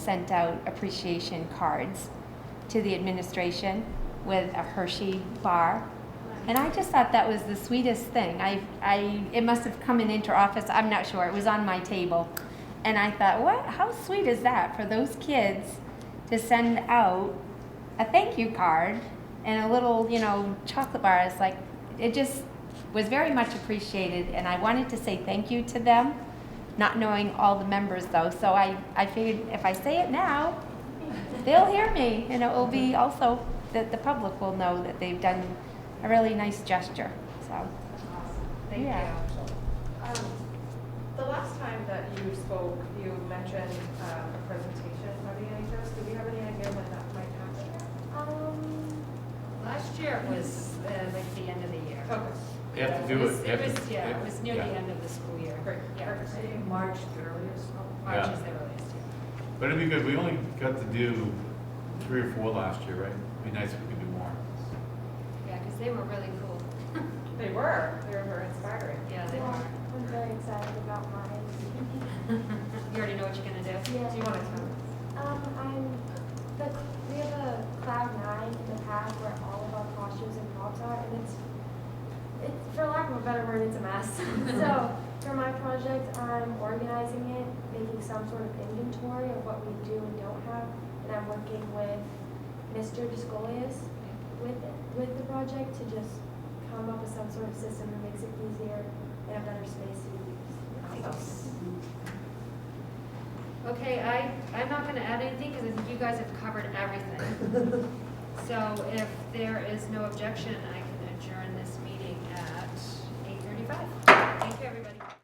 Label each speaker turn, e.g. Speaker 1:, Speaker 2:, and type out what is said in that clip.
Speaker 1: sent out appreciation cards to the administration with a Hershey bar. And I just thought that was the sweetest thing. I, I, it must have come in inter-office, I'm not sure, it was on my table. And I thought, what, how sweet is that for those kids to send out a thank you card and a little, you know, chocolate bar? It's like, it just was very much appreciated and I wanted to say thank you to them, not knowing all the members though. So I, I figured if I say it now, they'll hear me and it will be also that the public will know that they've done a really nice gesture, so.
Speaker 2: Thank
Speaker 1: Yeah.
Speaker 2: you. Um, The last time that you spoke, you mentioned um, a presentation by the NHS. Do we have any idea when that might happen?
Speaker 3: Um, Last year was uh, like the end of the year.
Speaker 2: Okay,
Speaker 4: They have to do
Speaker 3: was-
Speaker 4: it.
Speaker 3: It was, yeah, it was near the
Speaker 4: Yeah.
Speaker 3: end of the school year.
Speaker 2: great,
Speaker 3: Yeah.
Speaker 2: perfect.
Speaker 3: March, the earliest. March
Speaker 4: Yeah.
Speaker 3: is the earliest, yeah.
Speaker 4: But it'd be good, we only got to do three or four last year, right? It'd be nice if we could do more.
Speaker 3: Yeah, because they were really cool.
Speaker 2: They were, they were very inspiring.
Speaker 3: Yeah, they
Speaker 5: Yeah,
Speaker 3: were.
Speaker 5: I'm very excited about mine.
Speaker 3: You already know what you're going to do?
Speaker 5: Yeah.
Speaker 2: Do you want to tell us?
Speaker 5: Um, I'm, the, we have a cloud nine in the past where all of our costumes and props are, and it's, it's, for lack of a better word, it's a mess. So, for my project, I'm organizing it, making some sort of inventory of what we do and don't have, and I'm working with Mr. Discolius with, with the project to just come up with some sort of system that makes it easier and a better space to use.
Speaker 3: Okay, I, I'm not gonna add anything because I think you guys have covered everything. So if there is no objection, I